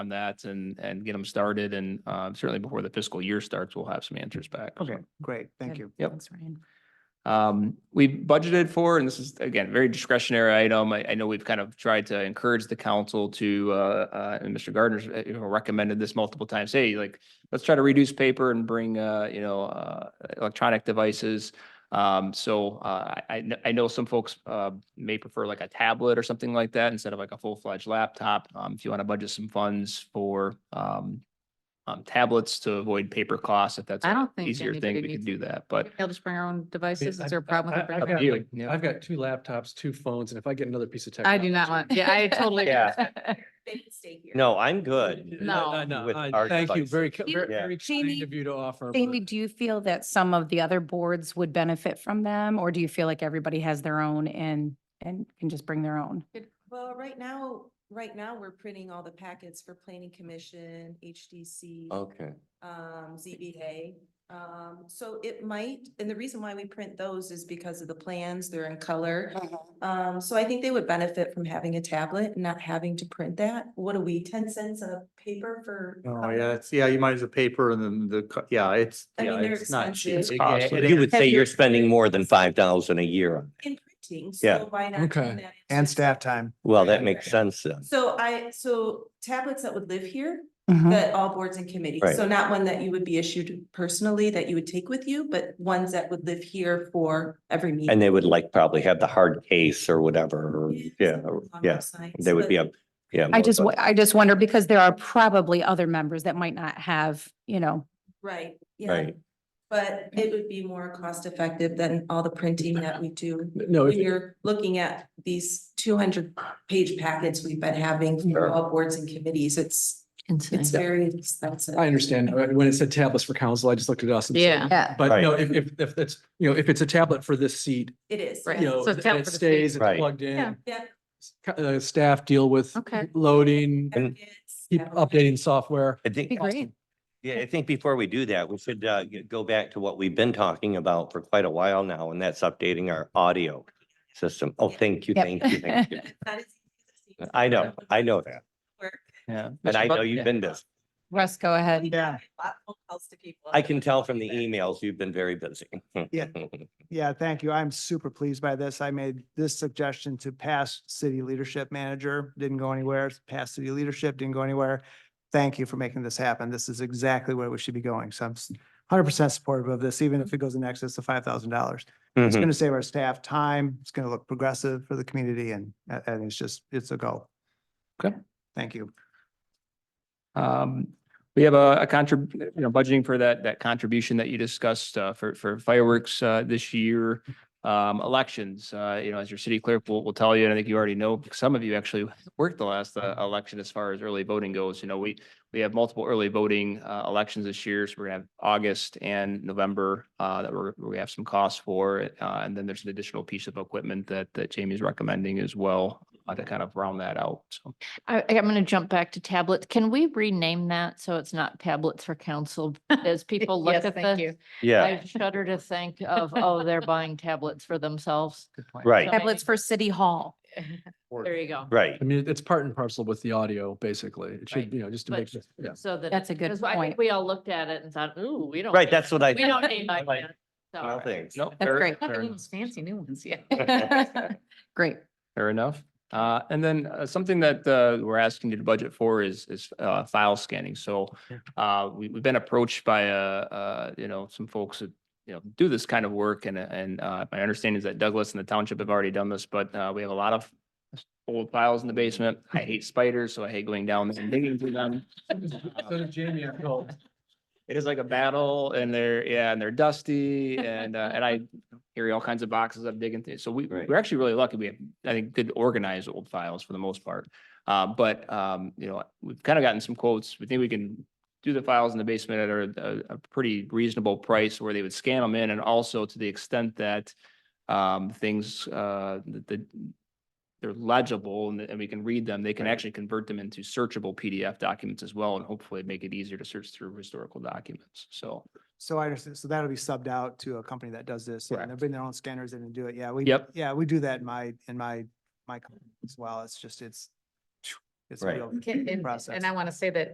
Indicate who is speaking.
Speaker 1: on that and, and get them started. And uh, certainly before the fiscal year starts, we'll have some answers back.
Speaker 2: Okay, great. Thank
Speaker 3: Good.
Speaker 2: you.
Speaker 1: Yep.
Speaker 3: Thanks, Ryan.
Speaker 1: Um, we budgeted for, and this is again, very discretionary item. I, I know we've kind of tried to encourage the council to, uh, uh, and Mr. Gardner's, uh, you know, recommended this multiple times. Hey, like, let's try to reduce paper and bring, uh, you know, uh, electronic devices. Um, so, uh, I, I kn- I know some folks, uh, may prefer like a tablet or something like that instead of like a full-fledged laptop. Um, if you want to budget some funds for, um, um, tablets to avoid paper costs, if that's
Speaker 3: I
Speaker 1: an
Speaker 3: don't think
Speaker 1: easier thing,
Speaker 3: anybody
Speaker 1: we could
Speaker 3: needs
Speaker 1: do that, but.
Speaker 3: They'll just bring our own devices.
Speaker 4: I-
Speaker 3: Is there a problem with
Speaker 4: I-
Speaker 3: it?
Speaker 4: I've
Speaker 1: Up
Speaker 4: got
Speaker 1: to you,
Speaker 4: like-
Speaker 1: yeah.
Speaker 4: I've got two laptops, two phones, and if I get another piece of tech.
Speaker 3: I do not want, yeah, I totally.
Speaker 5: Yeah. They can stay here.
Speaker 6: No, I'm good.
Speaker 3: No.
Speaker 6: With
Speaker 4: No,
Speaker 6: our
Speaker 4: thank you.
Speaker 6: devices.
Speaker 4: Very, ki- very
Speaker 6: Yeah.
Speaker 4: very
Speaker 7: Jamie-
Speaker 4: kind of you to offer.
Speaker 7: Jamie, do you feel that some of the other boards would benefit from them? Or do you feel like everybody has their own and, and can just bring their own?
Speaker 5: Well, right now, right now, we're printing all the packets for planning commission, HDC,
Speaker 6: Okay.
Speaker 5: um, ZBA. Um, so it might, and the reason why we print those is because of the plans, they're in color. Um, so I think they would benefit from having a tablet and not having to print that. What are we, ten cents a paper for?
Speaker 2: Oh,
Speaker 5: color?
Speaker 2: yeah, it's, yeah, you might as a paper and then the, co- yeah, it's,
Speaker 5: I
Speaker 2: yeah,
Speaker 5: mean, they're
Speaker 2: it's not cheap.
Speaker 5: expensive.
Speaker 2: It-
Speaker 6: Cost.
Speaker 2: it-
Speaker 6: You would
Speaker 2: it-
Speaker 6: say you're spending more than five thousand a year. on it.
Speaker 5: In printing,
Speaker 6: Yeah.
Speaker 5: so why not? turn
Speaker 4: Okay.
Speaker 5: that into-
Speaker 2: And staff time.
Speaker 6: Well, that makes sense then.
Speaker 5: So I, so tablets that would live here,
Speaker 7: Mhm.
Speaker 5: that all boards and committees.
Speaker 6: Mm-hmm. Right.
Speaker 5: So not one that you would be issued personally that you would take with you, but ones that would live here for every meeting.
Speaker 6: And they would like probably have the hard case or whatever. or- Yeah, or-
Speaker 5: on
Speaker 6: yeah.
Speaker 5: websites,
Speaker 6: They would
Speaker 5: but-
Speaker 6: be a, yeah.
Speaker 7: I
Speaker 6: more
Speaker 7: just,
Speaker 6: fun.
Speaker 7: wo- I just wonder because there are probably other members that might not have, you know,
Speaker 5: Right, yeah.
Speaker 6: Right.
Speaker 5: But it would be more cost effective than all the printing that we do.
Speaker 6: Oh,
Speaker 4: No,
Speaker 5: When
Speaker 4: if-
Speaker 5: you're looking at these two hundred page packets we've been having
Speaker 6: Sure.
Speaker 5: for all boards and committees, it's, it's very expensive.
Speaker 4: I understand. Uh, When it said tablets for council, I just looked at us. and said-
Speaker 3: Yeah.
Speaker 7: yeah,
Speaker 4: But no, if, if, if that's, you know, if it's a tablet for this seat,
Speaker 5: It is.
Speaker 3: Right.
Speaker 4: you know,
Speaker 3: So it's
Speaker 4: th-
Speaker 3: tablet
Speaker 4: it
Speaker 3: for the seat.
Speaker 4: stays, it's
Speaker 6: Right.
Speaker 4: plugged
Speaker 3: Yeah.
Speaker 4: in.
Speaker 5: Yeah.
Speaker 4: S- co- Uh, staff deal with
Speaker 3: Okay.
Speaker 4: loading,
Speaker 6: And-
Speaker 5: Packets,
Speaker 4: keep
Speaker 5: have-
Speaker 4: updating software.
Speaker 6: I think,
Speaker 7: be great.
Speaker 6: yeah, I think before we do that, we should uh, g- go back to what we've been talking about for quite a while now, and that's updating our audio system. Oh, thank you,
Speaker 7: Yep.
Speaker 6: thank you, thank you.
Speaker 5: It's not as easy as it
Speaker 6: I know, I know that.
Speaker 5: works.
Speaker 1: Yeah.
Speaker 6: And
Speaker 1: Mr.
Speaker 6: I
Speaker 1: Bud-
Speaker 6: know
Speaker 1: yeah.
Speaker 6: you've been busy.
Speaker 7: Russ, go ahead.
Speaker 2: Yeah.
Speaker 5: A lot of phone calls to people.
Speaker 6: I can tell from the emails, you've been very busy.
Speaker 2: Yeah. Yeah, thank you. I'm super pleased by this. I made this suggestion to past city leadership manager, didn't go anywhere. Past city leadership, didn't go anywhere. Thank you for making this happen. This is exactly where we should be going. So I'm hundred percent supportive of this, even if it goes in excess of five thousand dollars. It's
Speaker 6: Mhm.
Speaker 2: going to save our staff time. It's going to look progressive for the community and, and it's just, it's a goal.
Speaker 1: Okay.
Speaker 2: Thank you.
Speaker 1: Um, we have a, a contrib, you know, budgeting for that, that contribution that you discussed, uh, for, for fireworks, uh, this year. Um, elections, uh, you know, as your city clerk will, will tell you, and I think you already know, some of you actually worked the last, uh, election as far as early voting goes. You know, we, we have multiple early voting, uh, elections this year. So we're gonna have August and November, uh, that we're, we have some costs for. Uh, and then there's an additional piece of equipment that, that Jamie's recommending as well, uh, to kind of round that out. So.
Speaker 3: I, I'm going to jump back to tablets. Can we rename that so it's not tablets for council? As people look
Speaker 7: Yes,
Speaker 3: at
Speaker 7: thank
Speaker 3: this,
Speaker 7: you.
Speaker 6: Yeah,
Speaker 3: I shudder to think of, oh, they're buying tablets for themselves.
Speaker 6: right,
Speaker 7: Tablets for City Hall.
Speaker 3: There you go.
Speaker 6: right.
Speaker 4: I mean, it's part and parcel with the audio, basically. It should,
Speaker 3: Right.
Speaker 4: you know, just to
Speaker 3: But-
Speaker 4: make, sure- yeah.
Speaker 3: So that.
Speaker 7: That's a good
Speaker 3: 'cause I think
Speaker 7: point.
Speaker 3: We all looked at it and thought, ooh, we don't.
Speaker 6: Right,
Speaker 3: need-
Speaker 6: that's what I.
Speaker 3: We don't need
Speaker 6: I
Speaker 3: like
Speaker 6: like-
Speaker 3: that. So-
Speaker 6: Well, thanks.
Speaker 1: No,
Speaker 7: That's
Speaker 1: fair-
Speaker 7: great.
Speaker 1: fair enough.
Speaker 3: fancy new ones, yeah.
Speaker 7: Great.
Speaker 1: Fair enough. Uh, and then uh, something that, uh, we're asking you to budget for is, is, uh, file scanning. So, uh, we, we've been approached by, uh, uh, you know, some folks that, you know, do this kind of work and, and, uh, my understanding is that Douglas and the township have already done this, but, uh, we have a lot of old files in the basement. I hate spiders, so I hate going down and digging through them.
Speaker 4: So did Jamie, I feel.
Speaker 1: It is like a battle and they're, yeah, and they're dusty and, uh, and I carry all kinds of boxes I'm digging through. So we,
Speaker 6: Right.
Speaker 1: we're actually really lucky. We have, I think, good organized old files for the most part. Uh, but, um, you know, we've kind of gotten some quotes. We think we can do the files in the basement at a, a, a pretty reasonable price where they would scan them in and also to the extent that um, things, uh, that, that they're legible and, and we can read them, they can
Speaker 6: Right.
Speaker 1: actually convert them into searchable PDF documents as well and hopefully make it easier to search through historical documents. So,
Speaker 2: So I understand, so that'll be subbed out to a company that does this, and they
Speaker 1: Correct.
Speaker 2: bring their own scanners in and do it, yeah, we.
Speaker 1: Yep.
Speaker 2: Yeah, we do that in my, in my, my company as well, it's just, it's, It's a
Speaker 6: Right.
Speaker 2: real
Speaker 8: Can- And
Speaker 2: process.
Speaker 8: and I want to say that